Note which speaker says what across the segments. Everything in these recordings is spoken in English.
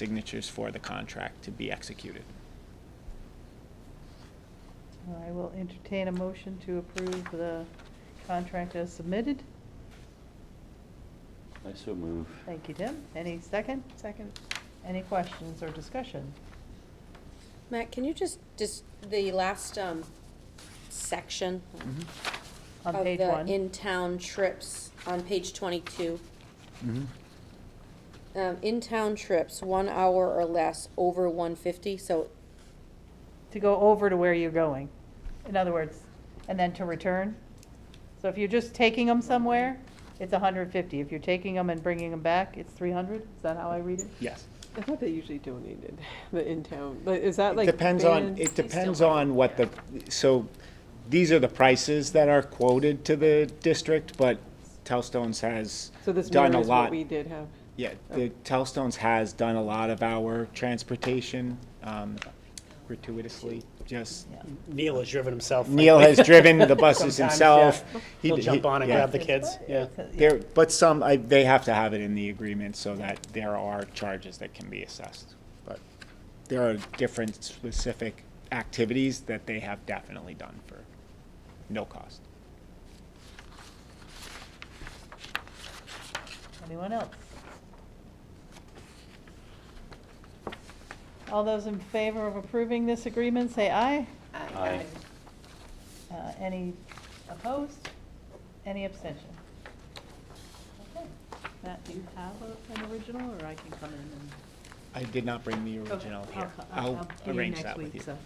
Speaker 1: signatures for the contract to be executed.
Speaker 2: I will entertain a motion to approve the contract as submitted.
Speaker 3: I so move.
Speaker 2: Thank you, Tim. Any second?
Speaker 4: Second.
Speaker 2: Any questions or discussion?
Speaker 4: Matt, can you just, just, the last um, section
Speaker 1: Mhm.
Speaker 2: On
Speaker 4: of
Speaker 2: page
Speaker 4: the
Speaker 2: one?
Speaker 4: in-town trips on page 22.
Speaker 1: Mm-hmm.
Speaker 4: um, In-town trips, one hour or less over 150, so,
Speaker 2: To go over to where you're going. In other words, and then to return. So if you're just taking them somewhere, it's 150. If you're taking them and bringing them back, it's 300? Is that how I read it?
Speaker 1: Yes.
Speaker 5: I thought they usually donated the in-town, like, is that like?
Speaker 1: Depends on,
Speaker 5: banned?
Speaker 1: it depends on what the, so these are the prices that are quoted to the district, but Telstones has
Speaker 5: So this
Speaker 1: done a
Speaker 5: mirrors what
Speaker 1: lot.
Speaker 5: we Oh. did have.
Speaker 1: Yeah, the Telstones has done a lot of our transportation um, gratuitously, just,
Speaker 6: Neil has driven himself.
Speaker 1: Neil has driven the buses
Speaker 6: Sometimes,
Speaker 1: himself.
Speaker 6: yeah.
Speaker 1: He-
Speaker 6: He'll
Speaker 1: he-
Speaker 6: jump on and
Speaker 1: yeah.
Speaker 6: grab the kids, yeah.
Speaker 1: There, but some, I, they have to have it in the agreement so that there are charges that can be assessed. But there are different specific activities that they have definitely done for no cost.
Speaker 2: Anyone else? All those in favor of approving this agreement, say aye.
Speaker 3: Aye.
Speaker 2: Uh, Any opposed? Any abstention? Okay. Matt, do you have a- an original, or I can come in and?
Speaker 1: I did not bring the original
Speaker 2: Okay,
Speaker 1: here.
Speaker 2: co-
Speaker 1: I'll
Speaker 2: get you
Speaker 1: arrange
Speaker 2: next
Speaker 1: that with
Speaker 2: week,
Speaker 1: you.
Speaker 2: so.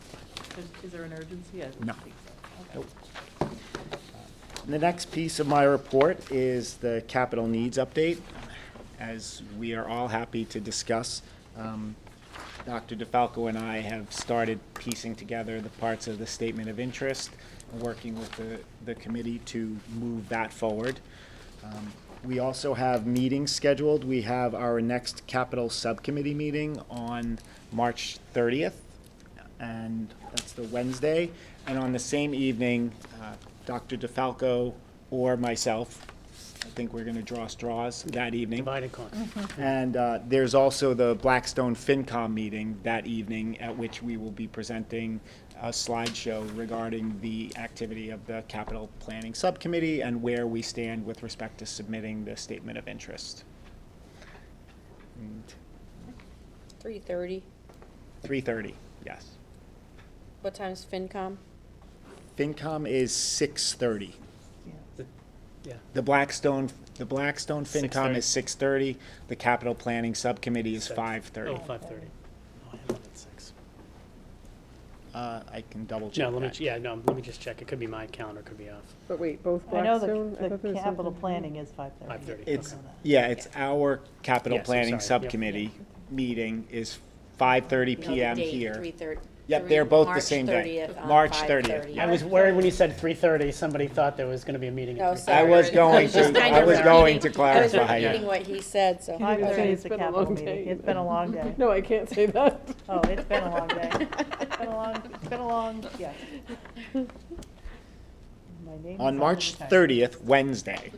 Speaker 2: Is- Is there an urgency? I don't
Speaker 1: No.
Speaker 2: think so.
Speaker 1: Nope.
Speaker 2: Okay.
Speaker 1: The next piece of my report is the capital needs update. As we are all happy to discuss, um, Dr. DeFalco and I have started piecing together the parts of the statement of interest, and working with the, the committee to move that forward. Um, We also have meetings scheduled. We have our next capital subcommittee meeting on March thirtieth, and that's the Wednesday. And on the same evening, uh, Dr. DeFalco or myself, I think we're gonna draw straws that evening.
Speaker 6: Divide and conquer.
Speaker 1: And uh, there's also the Blackstone FinCom meeting that evening, at which we will be presenting a slideshow regarding the activity of the Capital Planning Subcommittee and where we stand with respect to submitting the statement of interest.
Speaker 4: 3:30.
Speaker 1: Three thirty, yes.
Speaker 4: What time's FinCom?
Speaker 1: FinCom is six thirty.
Speaker 6: Yeah.
Speaker 1: The Blackstone, the Blackstone FinCom
Speaker 6: 6:30.
Speaker 1: is six thirty. The Capital Planning Subcommittee is
Speaker 6: Six.
Speaker 1: five thirty.
Speaker 6: Oh, five thirty. Oh, I have it at six.
Speaker 1: Uh, I can double
Speaker 6: No,
Speaker 1: check
Speaker 6: let me,
Speaker 1: that.
Speaker 6: yeah, no, let me just check. It could be my calendar, could be off.
Speaker 5: But wait, both
Speaker 2: I know
Speaker 5: Blackstone?
Speaker 2: the-
Speaker 5: thought there
Speaker 2: the
Speaker 5: was
Speaker 2: capital
Speaker 5: something-
Speaker 2: planning is 5:30.
Speaker 6: 5:30,
Speaker 1: It's,
Speaker 6: okay.
Speaker 1: yeah, it's our capital
Speaker 6: Yes, I'm
Speaker 1: planning
Speaker 6: sorry, yep.
Speaker 1: subcommittee meeting is five thirty
Speaker 4: No, the
Speaker 1: PM
Speaker 4: date,
Speaker 1: here.
Speaker 4: 3:30.
Speaker 1: Yep, they're
Speaker 4: Three-
Speaker 1: both the same day. March
Speaker 4: March 30th on 5:30.
Speaker 6: I
Speaker 1: yeah.
Speaker 6: was worried when you said three thirty, somebody thought there was gonna be a meeting.
Speaker 4: No,
Speaker 6: at
Speaker 4: Oh, sorry.
Speaker 1: I was going
Speaker 4: just
Speaker 1: to,
Speaker 4: kind
Speaker 1: I
Speaker 4: of
Speaker 1: was going to
Speaker 4: repeating- I was
Speaker 1: clarify, yeah.
Speaker 4: repeating what he said, so
Speaker 5: You didn't say
Speaker 2: 5:30
Speaker 4: 5:30.
Speaker 2: is
Speaker 5: it's
Speaker 2: the
Speaker 5: been a
Speaker 2: capital
Speaker 5: long
Speaker 2: meeting.
Speaker 5: day.
Speaker 2: It's been a long day.
Speaker 5: No, I can't say that.
Speaker 2: Oh, it's been a long day. It's been a long, it's been a long, yeah. My name is
Speaker 1: On March
Speaker 2: the time.
Speaker 1: thirtieth, Wednesday,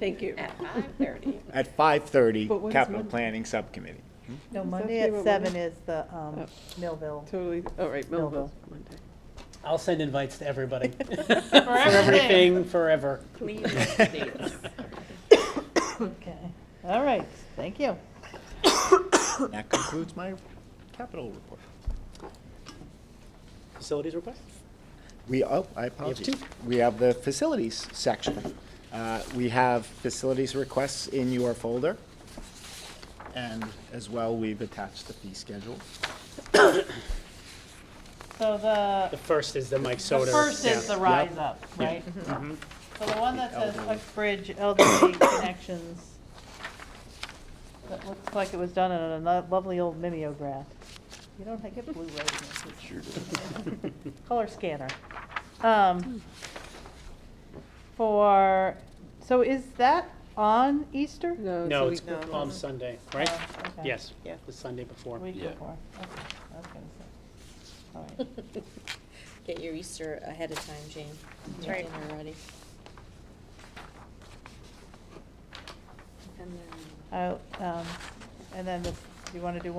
Speaker 5: Thank you.
Speaker 4: At 5:30.
Speaker 1: at five thirty,
Speaker 5: But what is
Speaker 1: capital
Speaker 5: Monday?
Speaker 1: planning subcommittee.
Speaker 2: No,
Speaker 5: Is that
Speaker 2: Monday
Speaker 5: the
Speaker 2: at
Speaker 5: one-
Speaker 2: seven is the um,
Speaker 5: Oh.
Speaker 2: Millville.
Speaker 5: Totally, all right, Millville, Monday.
Speaker 6: I'll send invites to everybody. For everything, forever.
Speaker 2: Okay, all right, thank you.
Speaker 1: That concludes my capital report.
Speaker 6: Facilities request?
Speaker 1: We, oh, I apologize.
Speaker 6: two.
Speaker 1: We have the facilities section. Uh, We have facilities requests in your folder. And as well, we've attached the fee schedule.
Speaker 2: So the,
Speaker 6: The first is the Mike
Speaker 2: the
Speaker 6: Soder.
Speaker 2: first
Speaker 6: yeah.
Speaker 2: is the Rise Up, right? So Mm-hmm. the one that says Uxbridge Elderly Connections, that looks like it was done in a lo- lovely old mimeograph. You don't get blue rays in this. it's- color scanner. Um, For, so is that on Easter?
Speaker 5: No.
Speaker 6: No,
Speaker 5: Oh, we-
Speaker 6: it's Palm Sunday, right?
Speaker 2: Oh, okay.
Speaker 6: Yes,
Speaker 5: Yeah.
Speaker 6: the Sunday before.
Speaker 2: Week
Speaker 3: Yeah.
Speaker 2: before. Okay, I was gonna say. All right.
Speaker 4: Get your Easter ahead of time, Jane. Get
Speaker 2: right.
Speaker 4: dinner ready. And then.
Speaker 2: I'll, um, And Oh, then, this- do you want to do